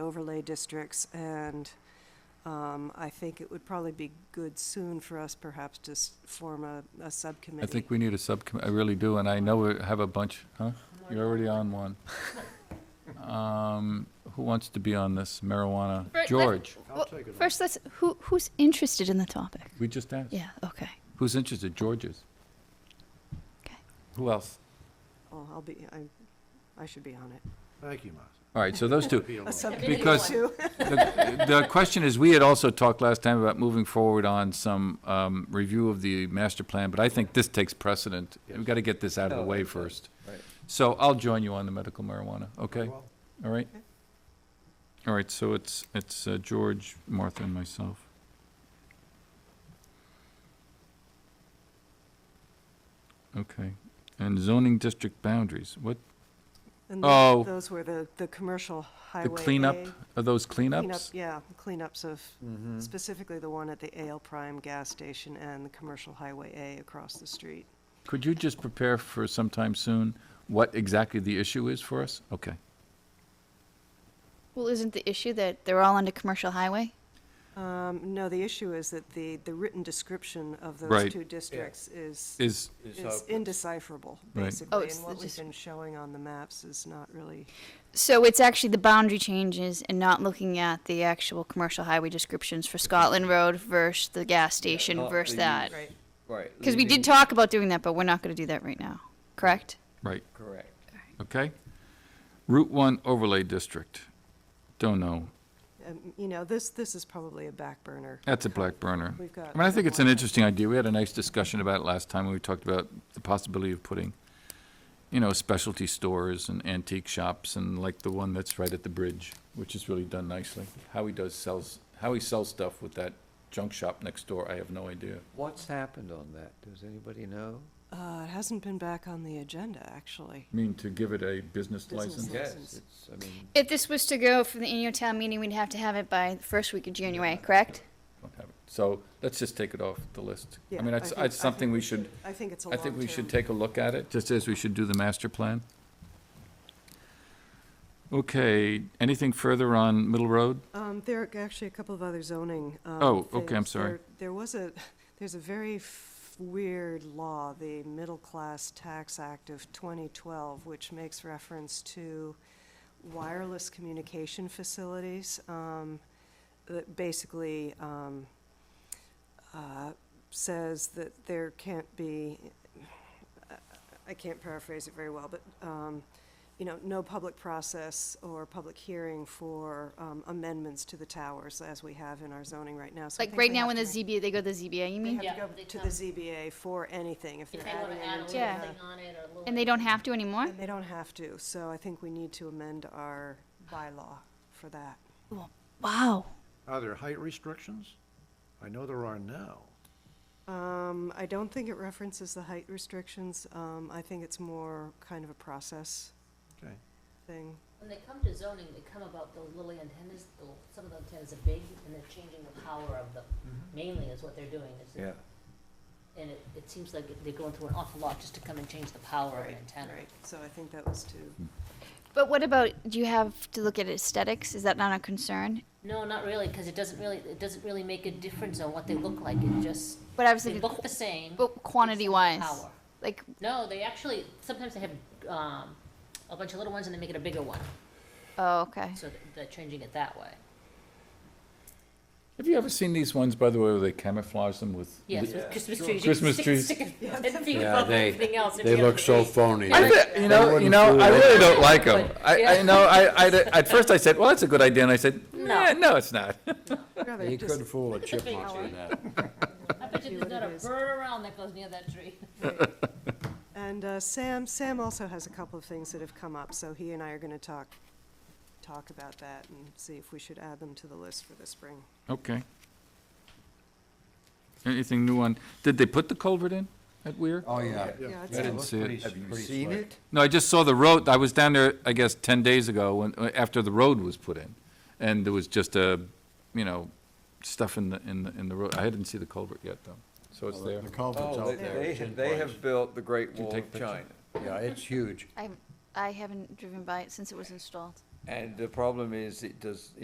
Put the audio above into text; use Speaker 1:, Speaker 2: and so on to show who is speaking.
Speaker 1: overlay districts, and um, I think it would probably be good soon for us perhaps to s- form a, a
Speaker 2: I
Speaker 1: subcommittee.
Speaker 2: think we need a subcommittee, I really do, and I know we have a bunch, huh? You're already on one. Um, Who wants to be on this marijuana?
Speaker 3: Right, let-
Speaker 2: George,
Speaker 3: Well, first, let's who who's interested in the topic.
Speaker 2: we just asked.
Speaker 3: Yeah. Okay.
Speaker 2: Who's interested? George is.
Speaker 3: Okay.
Speaker 2: Who else?
Speaker 1: Oh, I'll be, I, I should be on it.
Speaker 4: Thank you, Martha.
Speaker 2: All right, so those two.
Speaker 4: Be alone.
Speaker 1: A subcommittee
Speaker 2: Because
Speaker 1: too.
Speaker 2: the the question is, we had also talked last time about moving forward on some um, review of the master plan, but I think this takes precedent. We've
Speaker 4: Yes.
Speaker 2: got to get this out of the way first. So I'll join you on the medical marijuana, okay?
Speaker 4: Well,
Speaker 2: All right.
Speaker 1: Okay.
Speaker 2: All right, so it's, it's uh, George, Martha, and myself. Okay, and zoning district boundaries, what,
Speaker 1: And
Speaker 2: Oh.
Speaker 1: tho- those were the, the commercial highway.
Speaker 2: the cleanup,
Speaker 1: A-
Speaker 2: are those
Speaker 1: cleanup,
Speaker 2: cleanups?
Speaker 1: Yeah, cleanups of specifically the one at the Ale Prime gas station and the commercial highway A across the street.
Speaker 2: Could you just prepare for sometime soon what exactly the issue is for us? Okay.
Speaker 3: Well, isn't the issue that they're all on a commercial highway?
Speaker 1: Um, No, the issue is that the, the written description of
Speaker 2: Right.
Speaker 1: those two districts is,
Speaker 2: Is,
Speaker 1: is indecipherable,
Speaker 2: Right.
Speaker 3: Oh,
Speaker 1: basically.
Speaker 3: it's
Speaker 1: And
Speaker 3: the
Speaker 1: what we've
Speaker 3: dis-
Speaker 1: been showing on the maps is not really,
Speaker 3: So it's actually the boundary changes and not looking at the actual commercial highway descriptions for Scotland Road versus the gas station
Speaker 5: not
Speaker 3: versus
Speaker 5: the
Speaker 3: that.
Speaker 5: use.
Speaker 1: right,
Speaker 5: Right.
Speaker 3: Because we did
Speaker 5: leaving-
Speaker 3: talk about doing that, but we're not going to do that right now. Correct?
Speaker 2: right,
Speaker 5: Correct.
Speaker 2: okay. Route One overlay district, don't know,
Speaker 1: um, you know, this, this is probably a back burner.
Speaker 2: that's a black burner.
Speaker 1: We've got.
Speaker 2: I mean, I think it's an
Speaker 1: one-
Speaker 2: interesting idea. We had a nice discussion about it last time when we talked about the possibility of putting, you know, specialty stores and antique shops and like the one that's right at the bridge, which is really done nicely. How he does sells, how he sells stuff with that junk shop next door, I have no idea.
Speaker 5: What's happened on that? Does anybody know?
Speaker 1: Uh, It hasn't been back on the agenda, actually.
Speaker 2: I mean, to give it a business
Speaker 1: Business
Speaker 2: license?
Speaker 1: license.
Speaker 5: Yes,
Speaker 1: License.
Speaker 5: it's, I mean,
Speaker 3: If this was to go for the annual town meeting, we'd have to have it by the first week of January. Correct?
Speaker 2: Don't have it. So let's just take it off the list. I
Speaker 1: Yeah,
Speaker 2: mean, it's,
Speaker 1: think-
Speaker 2: it's
Speaker 1: I think
Speaker 2: something we should,
Speaker 1: I think it's a
Speaker 2: I
Speaker 1: long
Speaker 2: think we should
Speaker 1: term.
Speaker 2: take a look at it, just as we should do the master plan. Okay, anything further on Middle Road?
Speaker 1: Um, there are actually a couple of other zoning. um,
Speaker 2: Oh, okay, I'm
Speaker 1: things.
Speaker 2: sorry.
Speaker 1: There- There was a, there's a very f- weird law, the Middle Class Tax Act of 2012, which makes reference to wireless communication facilities. um, That basically um, uh, says that there can't be, I can't paraphrase it very well, but um, you know, no public process or public hearing for um, amendments to the towers as we have in our zoning right now. So I
Speaker 3: Like
Speaker 1: think
Speaker 3: right
Speaker 1: they
Speaker 3: now
Speaker 1: have
Speaker 3: when the
Speaker 1: to-
Speaker 3: ZBA, they go to the ZBA, you
Speaker 1: They
Speaker 3: mean?
Speaker 1: have to
Speaker 6: Yeah,
Speaker 1: go
Speaker 6: they
Speaker 1: to the
Speaker 6: come.
Speaker 1: ZBA for anything if they're
Speaker 6: If they want
Speaker 1: adding
Speaker 6: to add a
Speaker 1: it
Speaker 6: little
Speaker 1: into
Speaker 3: Yeah.
Speaker 1: the-
Speaker 6: thing on it or a little.
Speaker 3: And they don't have to anymore?
Speaker 1: And they don't have to, so I think we need to amend our bylaw for that.
Speaker 3: Wow.
Speaker 4: Are there height restrictions? I know there are now.
Speaker 1: Um, I don't think it references the height restrictions. Um, I think it's more kind of a process
Speaker 4: Okay.
Speaker 1: thing.
Speaker 6: When they come to zoning, they come about those little antennas, the, some of the antennas are big and they're changing the power of them.
Speaker 1: Mm-hmm.
Speaker 6: Mainly is what they're doing is.
Speaker 5: yeah.
Speaker 6: And it, it seems like they're going through an awful lot just to come and change the power of an antenna.
Speaker 1: Right, so I think that was to,
Speaker 3: But what about, do you have to look at aesthetics? Is that not a concern?
Speaker 6: No, not really, because it doesn't really, it doesn't really make a difference on what they look like, it just,
Speaker 3: But I was
Speaker 6: they
Speaker 3: thinking,
Speaker 6: look the same.
Speaker 3: but quantity wise,
Speaker 6: Power.
Speaker 3: like,
Speaker 6: No, they actually, sometimes they have, um, a bunch of little ones and they make it a bigger one,
Speaker 3: oh, okay.
Speaker 6: so th- they're changing it that way.
Speaker 2: Have you ever seen these ones, by the way, where they camouflage them with?
Speaker 6: Yes,
Speaker 2: li-
Speaker 6: with Christmas trees.
Speaker 2: Christmas trees.
Speaker 5: Yeah, they-
Speaker 6: They
Speaker 4: phony.
Speaker 2: I thi- you know, you know, I really don't like them. I, I you know, I, I, at first I said, well, that's a good idea, and I said,
Speaker 6: No.
Speaker 2: "Eh, no, it's not.
Speaker 1: rather just
Speaker 4: fool a
Speaker 6: chipmunk doing
Speaker 4: that.
Speaker 6: I bet
Speaker 1: See
Speaker 6: you there's
Speaker 1: what
Speaker 6: not
Speaker 1: it
Speaker 6: a
Speaker 1: is.
Speaker 6: bird around that goes near that tree.
Speaker 1: And uh, Sam, Sam also has a couple of things that have come up, so he and I are going to talk, talk about that and see if we should add them to the list for the spring.
Speaker 2: Okay. Anything new on, did they put the culvert in at Weir?
Speaker 5: Oh, yeah.
Speaker 1: Yeah,
Speaker 2: I didn't
Speaker 1: it's,
Speaker 2: see it.
Speaker 5: Have you seen it?
Speaker 2: No, I just saw the road, I was down there, I guess, ten days ago, when, after the road was put in, and there was just a, you know, stuff in the, in the, in the road, I didn't see the culvert yet, though, so it's there.
Speaker 4: The culvert's
Speaker 5: Oh,
Speaker 4: out
Speaker 5: they,
Speaker 4: there.
Speaker 5: they,
Speaker 4: It's in
Speaker 5: have- they
Speaker 4: place.
Speaker 5: have built the Great
Speaker 2: Did you
Speaker 5: Wall
Speaker 2: take
Speaker 5: of
Speaker 2: pictures?
Speaker 5: China.
Speaker 7: Yeah, it's huge.
Speaker 3: I, I haven't driven by it since it was installed.
Speaker 5: And the problem is, it does,